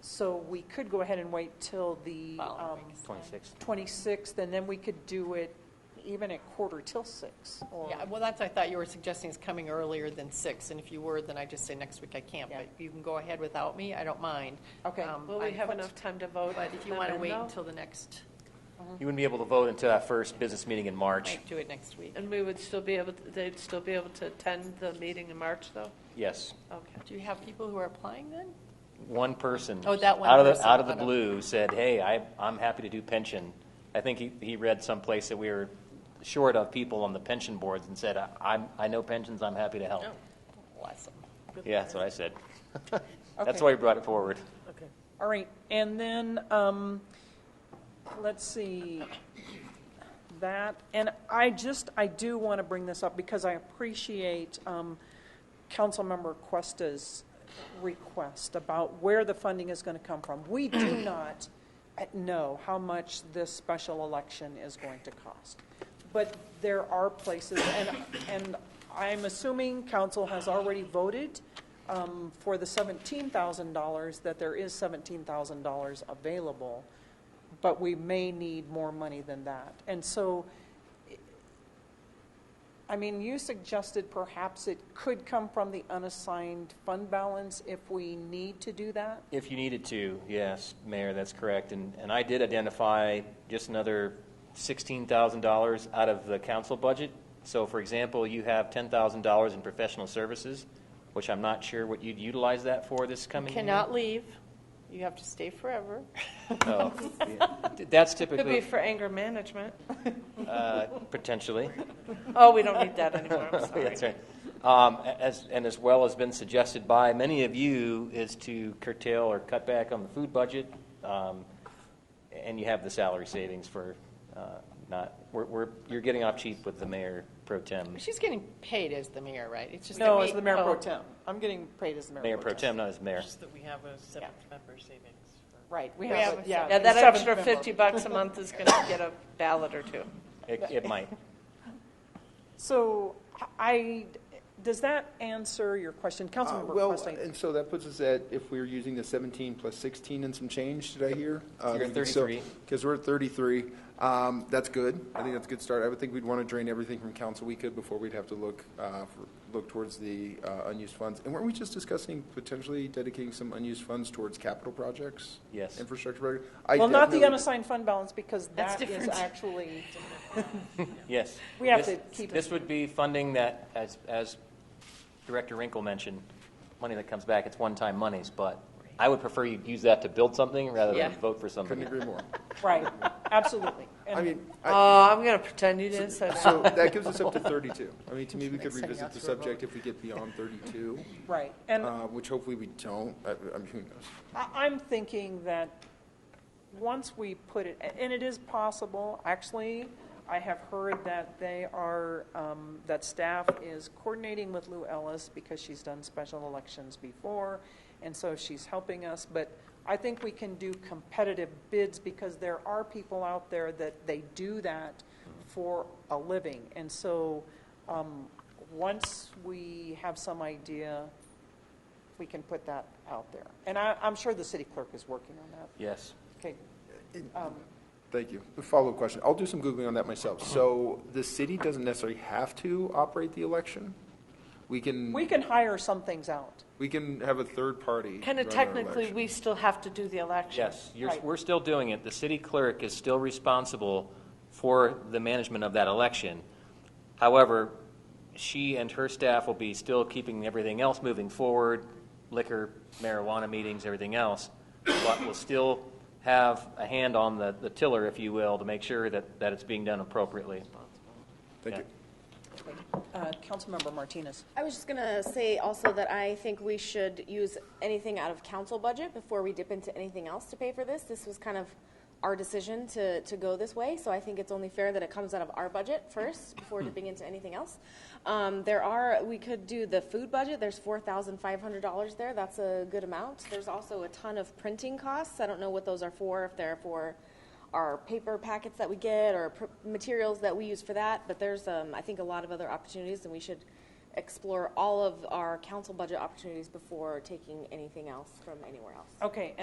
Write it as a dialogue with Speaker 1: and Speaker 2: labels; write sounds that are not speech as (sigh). Speaker 1: So we could go ahead and wait till the
Speaker 2: Following
Speaker 1: um,
Speaker 2: week.
Speaker 3: 26th.
Speaker 1: 26th, and then we could do it even at quarter till six. or-
Speaker 2: Yeah, well, that's, I thought you were suggesting is coming earlier than six, and if you were, then I just say next week I can't,
Speaker 1: Yeah.
Speaker 2: but you can go ahead without me, I don't mind.
Speaker 1: Okay.
Speaker 2: Um,
Speaker 4: Will we
Speaker 2: I'm
Speaker 4: have
Speaker 2: flex-
Speaker 4: enough time to vote?
Speaker 2: But if you
Speaker 4: them
Speaker 2: want to
Speaker 4: in,
Speaker 2: wait
Speaker 4: though?
Speaker 2: until the next,
Speaker 3: You wouldn't be able to vote until that first business meeting in March.
Speaker 2: might do it next week.
Speaker 4: And we would still be able, to- they'd still be able to attend the meeting in March, though?
Speaker 3: Yes.
Speaker 4: Okay.
Speaker 2: Do you have people who are applying then?
Speaker 3: One person.
Speaker 2: Oh, that one
Speaker 3: out of the-
Speaker 2: person.
Speaker 3: Out of the
Speaker 2: Out of-
Speaker 3: blue said, hey, I, I'm happy to do pension. I think he, he read someplace that we were short of people on the pension boards and said, "I- I'm, I know pensions, I'm happy to help.
Speaker 2: Oh, Bless them.
Speaker 3: Yeah, that's what I said.
Speaker 2: (laughs)
Speaker 3: That's
Speaker 1: Okay.
Speaker 3: why he brought it forward.
Speaker 1: All right, and then, um, let's see, that, and I just, I do want to bring this up because I appreciate um, Councilmember Cuesta's request about where the funding is going to come from. We do not know how much this special election is going to cost. But there are places, and, and I'm assuming council has already voted um, for the $17,000, that there is $17,000 available, but we may need more money than that. And so, I mean, you suggested perhaps it could come from the unassigned fund balance if we need to do that?
Speaker 3: If you needed to, yes, Mayor, that's correct. And, and I did identify just another $16,000 out of the council budget. So for example, you have $10,000 in professional services, which I'm not sure what you'd utilize that for this coming year.
Speaker 2: Cannot leave, you have to stay forever.
Speaker 3: Oh, yeah. That's
Speaker 4: Could be
Speaker 3: typically,
Speaker 4: for anger management.
Speaker 3: uh, potentially.
Speaker 4: Oh, we don't need that anymore,
Speaker 3: (laughs)
Speaker 1: (laughs)
Speaker 4: I'm sorry.
Speaker 3: That's right. Um, a- as, and as well has been suggested by many of you is to curtail or cut back on the food budget. Um, and you have the salary savings for, uh, not, we're, we're, you're getting off cheap with the mayor pro tem.
Speaker 2: She's getting paid as the mayor, right? It's just that
Speaker 1: No,
Speaker 2: we-
Speaker 1: as the mayor pro
Speaker 2: oh,
Speaker 1: tem. I'm getting paid as the mayor pro tem.
Speaker 3: Mayor pro tem, not as mayor.
Speaker 5: Just that we have a seventh
Speaker 2: Yeah.
Speaker 5: member savings. for-
Speaker 1: Right, we
Speaker 2: We
Speaker 1: have,
Speaker 2: have
Speaker 1: a-
Speaker 2: a
Speaker 1: yeah.
Speaker 4: Yeah,
Speaker 1: the
Speaker 4: that
Speaker 1: seventh
Speaker 4: extra
Speaker 1: member.
Speaker 4: 50 bucks a month is going to get a ballot or two.
Speaker 3: It, it might.
Speaker 1: So I, does that answer your question,
Speaker 6: Uh,
Speaker 1: Councilmember
Speaker 6: Well,
Speaker 1: Questa?
Speaker 6: and so that puts us at, if we're using the 17 plus 16 and some change, did I hear?
Speaker 3: You're at 33.
Speaker 6: Because we're at 33. Um, That's good. I think that's a good start. I would think we'd want to drain everything from council we could before we'd have to look, uh, for- look towards the uh, unused funds. And weren't we just discussing potentially dedicating some unused funds towards capital projects?
Speaker 3: Yes.
Speaker 6: Infrastructure projects?
Speaker 1: Well, not the unassigned fund balance, because
Speaker 2: That's
Speaker 1: that is
Speaker 2: different.
Speaker 1: actually,
Speaker 3: Yes.
Speaker 1: We have
Speaker 3: This-
Speaker 1: to keep it-
Speaker 3: This would be funding that, as, as Director Wrinkle mentioned, money that comes back, it's one-time monies, but I would prefer you use that to build something rather than
Speaker 2: Yeah.
Speaker 3: vote for
Speaker 6: Couldn't
Speaker 3: something.
Speaker 6: agree
Speaker 1: (laughs)
Speaker 6: more.
Speaker 1: right, absolutely.
Speaker 6: (laughs) I
Speaker 1: And-
Speaker 6: mean, I-
Speaker 4: Oh, I'm going to pretend you didn't say that.
Speaker 6: so that gives us up to 32. I mean, to me, we could
Speaker 2: Sending
Speaker 6: revisit
Speaker 2: out
Speaker 6: the
Speaker 2: to a vote.
Speaker 6: subject if we get beyond 32.
Speaker 1: Right, and
Speaker 6: Uh, which hopefully we don't. I, I mean, who knows?
Speaker 1: I- I'm thinking that once we put it, and it is possible, actually, I have heard that they are, um, that staff is coordinating with Lou Ellis because she's done special elections before, and so she's helping us, but I think we can do competitive bids because there are people out there that they do that for a living. And so, um, once we have some idea we can put that out there. And I, I'm sure the city clerk is working on that.
Speaker 3: Yes.
Speaker 1: Okay,
Speaker 6: Thank you. The follow-up question. I'll do some Googling on that myself. So the city doesn't necessarily have to operate the election? We can,
Speaker 1: we can hire some things out.
Speaker 6: we can have a third party.
Speaker 4: Kind of
Speaker 6: run our
Speaker 4: technically,
Speaker 6: election.
Speaker 4: we still have to do the election.
Speaker 3: Yes, you're,
Speaker 1: Right.
Speaker 3: we're still doing it. The city clerk is still responsible for the management of that election. However, she and her staff will be still keeping everything else moving forward, liquor, marijuana meetings, everything else, but will still have a hand on the, the tiller, if you will, to make sure that, that it's being done appropriately.
Speaker 6: Thank
Speaker 3: Yeah.
Speaker 6: you.
Speaker 1: Uh, Councilmember Martinez.
Speaker 7: I was just going to say also that I think we should use anything out of council budget before we dip into anything else to pay for this. This was kind of our decision to, to go this way, so I think it's only fair that it comes out of our budget first before dipping into anything else. Um, there are, we could do the food budget, there's $4,500 there, that's a good amount. There's also a ton of printing costs, I don't know what those are for, if they're for our paper packets that we get or pr- materials that we use for that, but there's, um, I think, a lot of other opportunities, and we should explore all of our council budget opportunities before taking anything else from anywhere else.
Speaker 1: Okay,